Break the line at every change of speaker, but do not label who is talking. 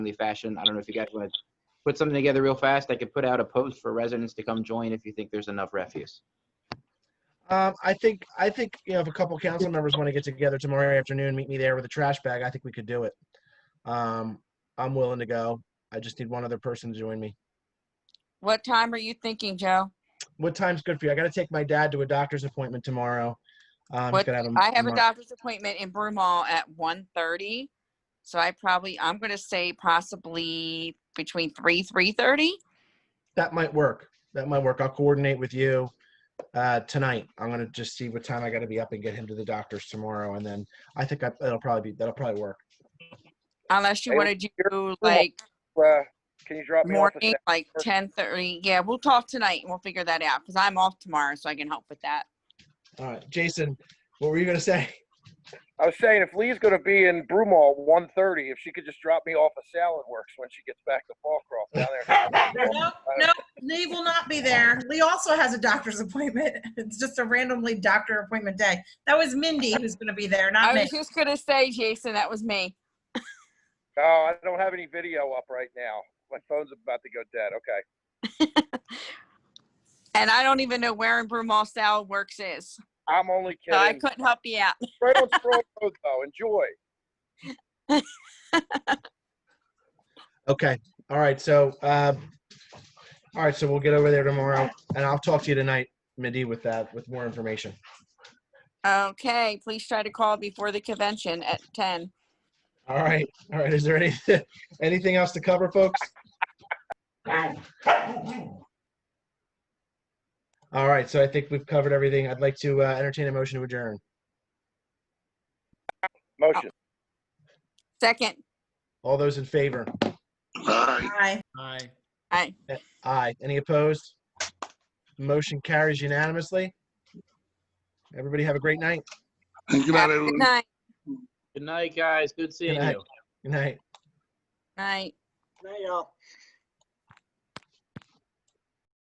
timely fashion. I don't know if you guys want to put something together real fast. I could put out a post for residents to come join if you think there's enough refuse.
Um, I think, I think, you know, if a couple council members want to get together tomorrow afternoon, meet me there with a trash bag, I think we could do it. Um, I'm willing to go. I just need one other person to join me.
What time are you thinking, Joe?
What time's good for you? I gotta take my dad to a doctor's appointment tomorrow. Um, he's
What-
gonna
Mm,
have
I have a
mar-
doctor's appointment in Broomall at 1:30, so I probably, I'm gonna say possibly between three, 3:30.
That might work. That might work. I'll coordinate with you, uh, tonight. I'm gonna just see what time I gotta be up and get him to the doctor's tomorrow. And then I think I, it'll probably be, that'll probably work.
Unless you
Hey,
wanna do like
Uh, can you drop me off? a
morning, like 10:30. Yeah, we'll talk tonight and we'll figure that out, because I'm off tomorrow, so I can help with that.
All right, Jason, what were you gonna say?
I was saying, if Lee's going to be in Broomall 1:30, if she could just drop me off a Salad Works when she gets back to Fallcroft down there.
No, no, Lee will not be there. Lee also has a doctor's appointment. It's just a randomly doctor appointment day. That was Mindy who's going to be there, not
I
me.
was just gonna say, Jason, that was me.
Oh, I don't have any video up right now. My phone's about to go dead. Okay.
And I don't even know where in Broomall Salad Works is,
I'm only
so I
kidding.
couldn't help you out.
Right on Stroll Road, though. Enjoy.
Okay, all right, so, uh, all right, so we'll get over there tomorrow and I'll talk to you tonight, Mindy, with that, with more information.
Okay, please try to call before the convention at 10.
All right, all right, is there any, anything else to cover, folks? All right, so I think we've covered everything. I'd like to uh, entertain a motion to adjourn.
Motion.
Second,
All those in favor?
Bye.
Aye.
I,
Aye. Any opposed? Motion carries unanimously. Everybody have a great night.
Good
have
night,
a
everyone.
good night,
Good night, guys. Good seeing
Good night.
you.
Good night.
night.
Night, y'all.